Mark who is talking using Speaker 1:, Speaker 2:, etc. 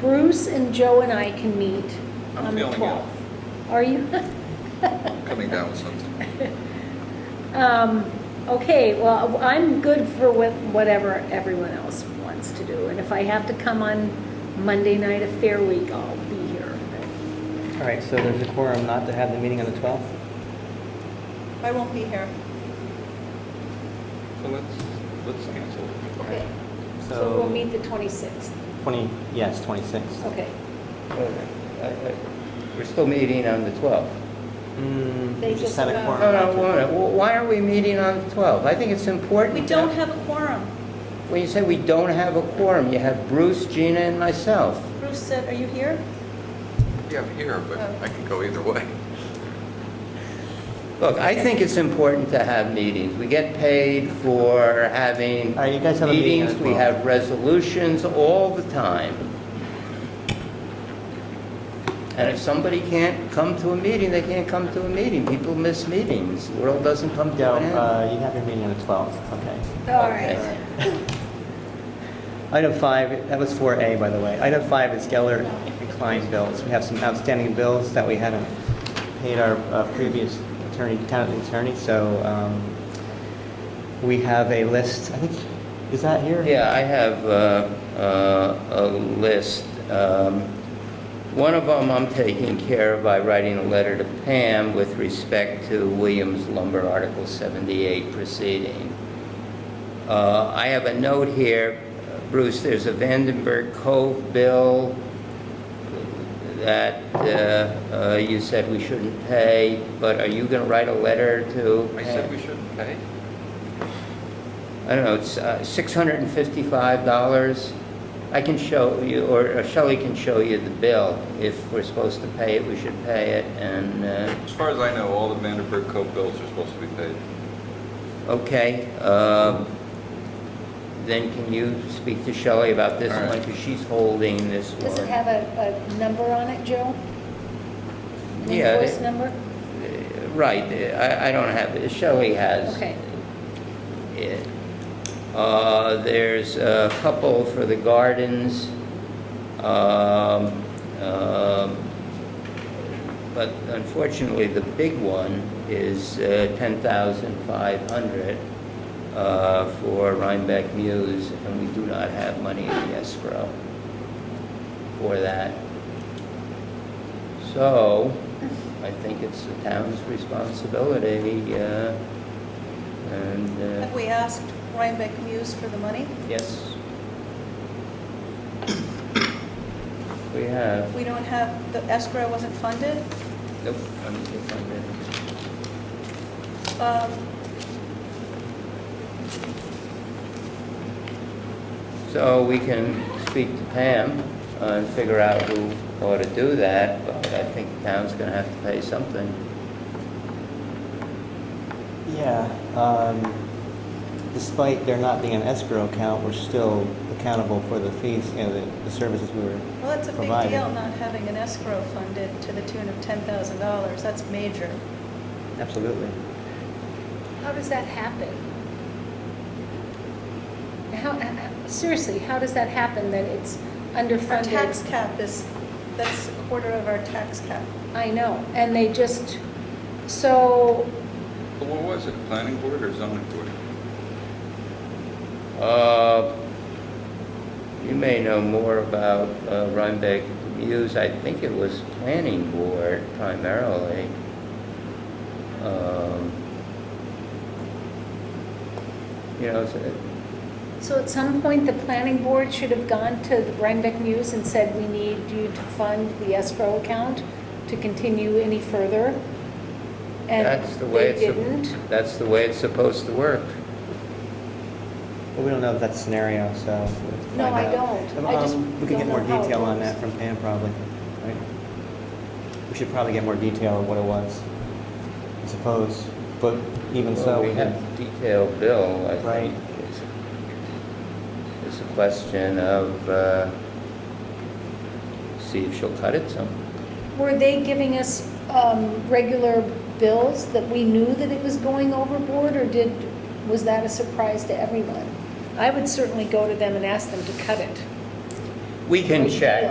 Speaker 1: Bruce and Joe and I can meet
Speaker 2: I'm
Speaker 1: on the
Speaker 2: feeling
Speaker 1: 12th. Are you?
Speaker 2: coming down with something.
Speaker 1: Um, Okay, well, I'm good for wh- whatever everyone else wants to do. And if I have to come on Monday night of Fair Week, I'll be here.
Speaker 3: All right, so there's a quorum not to have the meeting on the 12th?
Speaker 4: I won't be here.
Speaker 2: So let's, let's cancel it.
Speaker 1: Okay, so we'll
Speaker 3: So
Speaker 1: meet the 26th.
Speaker 3: 20, yes, 26th.
Speaker 1: Okay,
Speaker 5: Well, I- I- We're still meeting on the 12th.
Speaker 3: Mm,
Speaker 1: They
Speaker 3: you just
Speaker 1: just
Speaker 3: had a
Speaker 1: allow-
Speaker 3: quorum.
Speaker 5: No, no,
Speaker 3: not to-
Speaker 5: why- why are we meeting on the 12th? I think it's important.
Speaker 4: We don't have a quorum.
Speaker 5: When you say we don't have a quorum, you have Bruce, Gina, and myself.
Speaker 4: Bruce said, are you here?
Speaker 2: Yeah, I'm here, but I can go either way.
Speaker 5: Look, I think it's important to have meetings. We get paid for having
Speaker 3: All right, you guys have a meeting on
Speaker 5: meetings,
Speaker 3: the
Speaker 5: we
Speaker 3: 12th.
Speaker 5: have resolutions all the time. And if somebody can't come to a meeting, they can't come to a meeting. People miss meetings. The world doesn't come
Speaker 3: No,
Speaker 5: to an end.
Speaker 3: uh, you have your meeting on the 12th, okay.
Speaker 1: all
Speaker 5: Okay.
Speaker 1: right.
Speaker 3: Item five, that was 4A, by the way. Item five is Geller and Klein bills. We have some outstanding bills that we hadn't paid our uh, previous attorney, town attorney, so um, we have a list, I think, is that here?
Speaker 5: Yeah, I have uh, uh, a list. Um, One of them I'm taking care of by writing a letter to Pam with respect to Williams Lumber Article 78 proceeding. Uh, I have a note here, Bruce, there's a Vandenberg Cove bill that uh, uh, you said we shouldn't pay, but are you going to write a letter to?
Speaker 2: I said
Speaker 5: Pam?
Speaker 2: we shouldn't pay.
Speaker 5: I don't know, it's uh, $655. I can show you, or Shelley can show you the bill. If we're supposed to pay it, we should pay it, and, uh,
Speaker 2: As far as I know, all the Vanderburg Cove bills are supposed to be paid.
Speaker 5: okay. uh, Then can you speak to Shelley about this
Speaker 2: All right.
Speaker 5: one, because she's holding this one.
Speaker 1: Does it have a, a Uh, number on it, Joe? An
Speaker 5: Yeah, it-
Speaker 1: Invoice number?
Speaker 5: Uh, Right, uh, I I don't have, it. Shelley has.
Speaker 1: Okay.
Speaker 5: it. Uh, There's a couple for the gardens, um, um, but unfortunately, the big one is uh, 10,500 uh, for Rhinebeck Muse, and we do not have money in the escrow for that. So, I think it's the town's responsibility, uh, and... uh,
Speaker 4: Have we asked Rhinebeck Muse for the money?
Speaker 5: Yes. We have.
Speaker 4: We don't have, the escrow wasn't funded?
Speaker 5: Nope. I don't think I'm ready.
Speaker 4: Um,
Speaker 5: So we can speak to Pam uh, and figure out who ought to do that, but I think the town's gonna have to pay something.
Speaker 3: Yeah, um, despite there not being an escrow account, we're still accountable for the fees, you know, the, the services we were
Speaker 4: Well, that's a big
Speaker 3: Provided.
Speaker 4: deal, not having an escrow funded to the tune of $10,000. That's major.
Speaker 3: Absolutely.
Speaker 1: How does that happen? How, how- seriously, how does that happen that it's
Speaker 4: Our tax
Speaker 1: underfunded?
Speaker 4: cap is, that's a quarter of our tax cap.
Speaker 1: I know, and they just, so,
Speaker 2: But what was it, planning board or zoning board?
Speaker 5: Uh, You may know more about uh, Rhinebeck Muse. I think it was planning board primarily. Um, You know, it's-
Speaker 1: so at some point, the planning board should have gone to the Rhinebeck News and said, we need you to fund the escrow account to continue any further. And
Speaker 5: That's the way
Speaker 1: they
Speaker 5: it's,
Speaker 1: didn't.
Speaker 5: sup- that's the way it's supposed to work.
Speaker 3: But we don't know that scenario, so. we'll have to
Speaker 1: No,
Speaker 3: find
Speaker 1: I
Speaker 3: out.
Speaker 1: don't. I
Speaker 3: Um,
Speaker 1: just
Speaker 3: We
Speaker 1: don't
Speaker 3: could get more
Speaker 1: know how it
Speaker 3: detail on
Speaker 1: works.
Speaker 3: that from Pam probably, right? We should probably get more detail of what it was, I suppose, but even so.
Speaker 5: Well, We have
Speaker 3: can-
Speaker 5: detailed bill, I
Speaker 3: Right.
Speaker 5: think. is- It's a question of, uh, see if she'll cut it some.
Speaker 1: Were they giving us um, regular bills that we knew that it was going overboard, or did, was that a surprise to everyone? I would certainly go to them and ask them to cut it.
Speaker 5: We can
Speaker 1: Right.
Speaker 5: check.